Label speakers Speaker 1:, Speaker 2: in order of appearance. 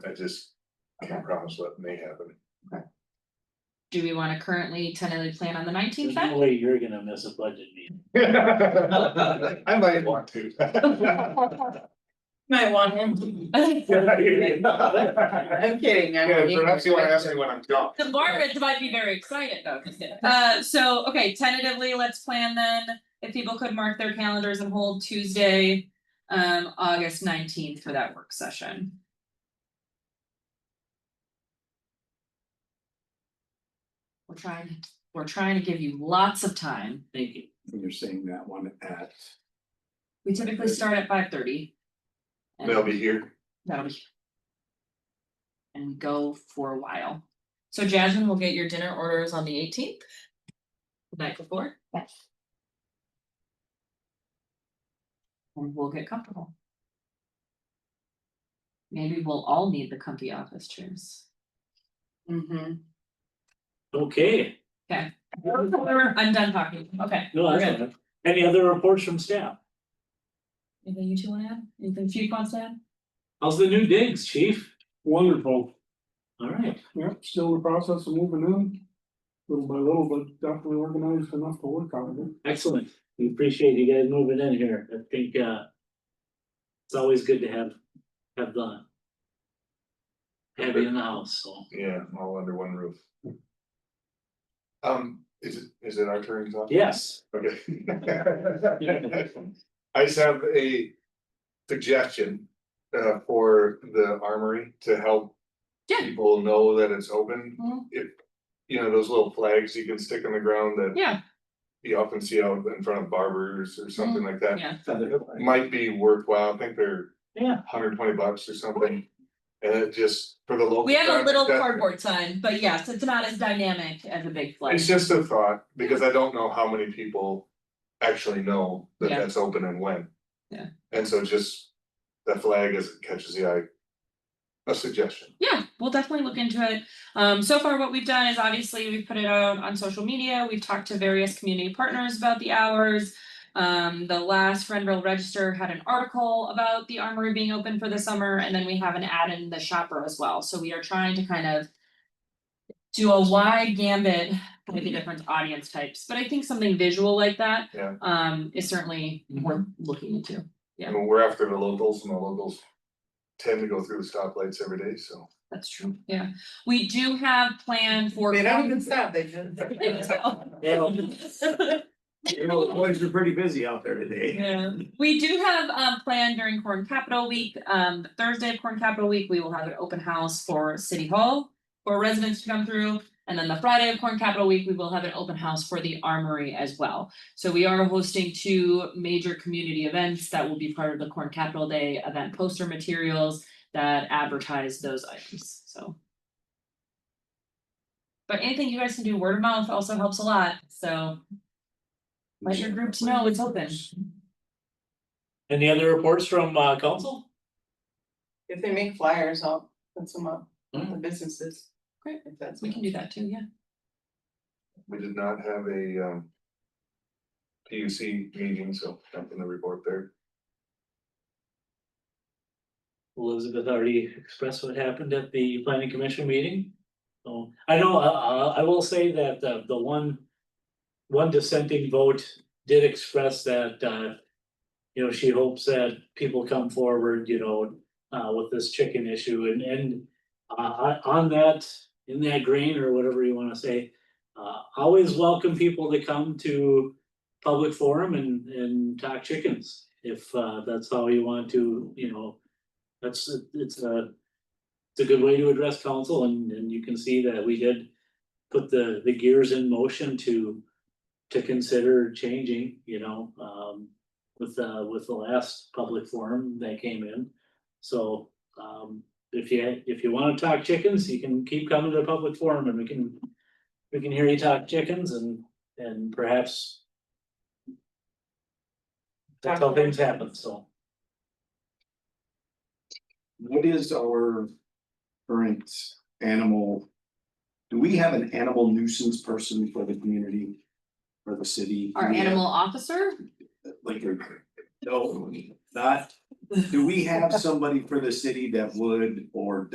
Speaker 1: I just can't promise what may happen.
Speaker 2: Do we wanna currently tentatively plan on the nineteenth
Speaker 3: There's no way you're gonna miss a budget meeting.
Speaker 1: I might want to.
Speaker 4: Might want him. I'm kidding, I'm.
Speaker 1: Yeah, perhaps you wanna ask me when I'm gone.
Speaker 2: The Marvins might be very excited though. Uh, so, okay, tentatively, let's plan then, if people could mark their calendars and hold Tuesday, um, August nineteenth for that work session. We're trying, we're trying to give you lots of time.
Speaker 3: Thank you.
Speaker 5: And you're saying that one at,
Speaker 2: We typically start at five thirty.
Speaker 1: They'll be here.
Speaker 2: That'll be. And we go for a while. So Jasmine will get your dinner orders on the eighteenth? Night before?
Speaker 4: Yes.
Speaker 2: And we'll get comfortable. Maybe we'll all need the comfy office chairs.
Speaker 4: Mm-hmm.
Speaker 3: Okay,
Speaker 2: I'm done talking, okay.
Speaker 3: no, that's fine. Any other reports from staff?
Speaker 2: Anything you two wanna add? Anything Chief wants to add?
Speaker 3: How's the new digs, chief?
Speaker 6: Wonderful,
Speaker 3: All right,
Speaker 6: yep, still in the process of moving in, little by little, but definitely organized enough to work out of it.
Speaker 3: excellent. We appreciate you guys moving in here. I think uh. It's always good to have, have the. Have you in the house, so.
Speaker 1: Yeah, all under one roof. Um, is it, is it our turn to talk?
Speaker 3: Yes,
Speaker 1: Okay. I just have a suggestion uh for the armory to help.
Speaker 2: Yeah.
Speaker 1: People know that it's open,
Speaker 2: Mhm.
Speaker 1: if, you know, those little flags you can stick on the ground that.
Speaker 2: Yeah.
Speaker 1: You often see out in front of barbers or something like that,
Speaker 2: Mm, Yeah,
Speaker 1: might be worthwhile, I think they're.
Speaker 3: Yeah.
Speaker 1: Hundred twenty bucks or something, and it just for the local.
Speaker 2: we have a
Speaker 1: traffic,
Speaker 2: little
Speaker 1: that-
Speaker 2: cardboard sign, but yes, it's not as dynamic as a big flag.
Speaker 1: It's just a thought, because I don't know how many people actually know that
Speaker 2: Yeah.
Speaker 1: that's open and when.
Speaker 2: Yeah.
Speaker 1: And so just the flag as it catches the eye. A suggestion,
Speaker 2: Yeah, we'll definitely look into it. Um, so far, what we've done is obviously we've put it out on social media. We've talked to various community partners about the hours. Um, the last Renville Register had an article about the armory being open for the summer, and then we have an ad in the shopper as well. So we are trying to kind of do a wide gambit with the different audience types, but I think something visual like that
Speaker 1: Yeah.
Speaker 2: um, is certainly worth looking into. Yeah.
Speaker 1: and we're after the locals and the locals tend to go through the stoplights every day, so.
Speaker 2: That's true. Yeah, we do have planned for.
Speaker 4: They don't even stop, they just.
Speaker 5: you know, the boys are pretty busy out there today.
Speaker 2: Yeah, we do have um planned during Corn Capital Week, um the Thursday of Corn Capital Week, we will have an open house for City Hall. For residents to come through, and then the Friday of Corn Capital Week, we will have an open house for the Armory as well. So we are hosting two major community events that will be part of the Corn Capital Day event poster materials that advertise those items, so. But anything you guys can do, word of mouth also helps a lot, so let your groups know it's open.
Speaker 3: any other reports from uh council?
Speaker 4: If they make flyers, I'll put some up,
Speaker 1: Hmm.
Speaker 4: the businesses.
Speaker 2: Great.
Speaker 4: If that's.
Speaker 2: We can do that too, yeah.
Speaker 1: We did not have a um. P U C meeting, so nothing to report there.
Speaker 3: Elizabeth already expressed what happened at the planning commission meeting. So I know, uh, uh, I will say that uh, the one. One dissenting vote did express that, uh. You know, she hopes that people come forward, you know, uh, with this chicken issue and, and. Uh, on- on that, in that grain or whatever you wanna say, uh, always welcome people to come to. Public forum and, and talk chickens, if, uh, that's how you want to, you know, that's, it's a. It's a good way to address council and, and you can see that we did put the, the gears in motion to. To consider changing, you know, um, with, uh, with the last public forum that came in. So, um, if you, if you wanna talk chickens, you can keep coming to the public forum and we can. We can hear you talk chickens and, and perhaps. That's how things happen, so.
Speaker 5: What is our current animal? Do we have an animal nuisance person for the community? For the city?
Speaker 2: Our
Speaker 5: Do we have-
Speaker 2: animal officer,
Speaker 5: Like, your- no, not, do we have somebody for the city that would or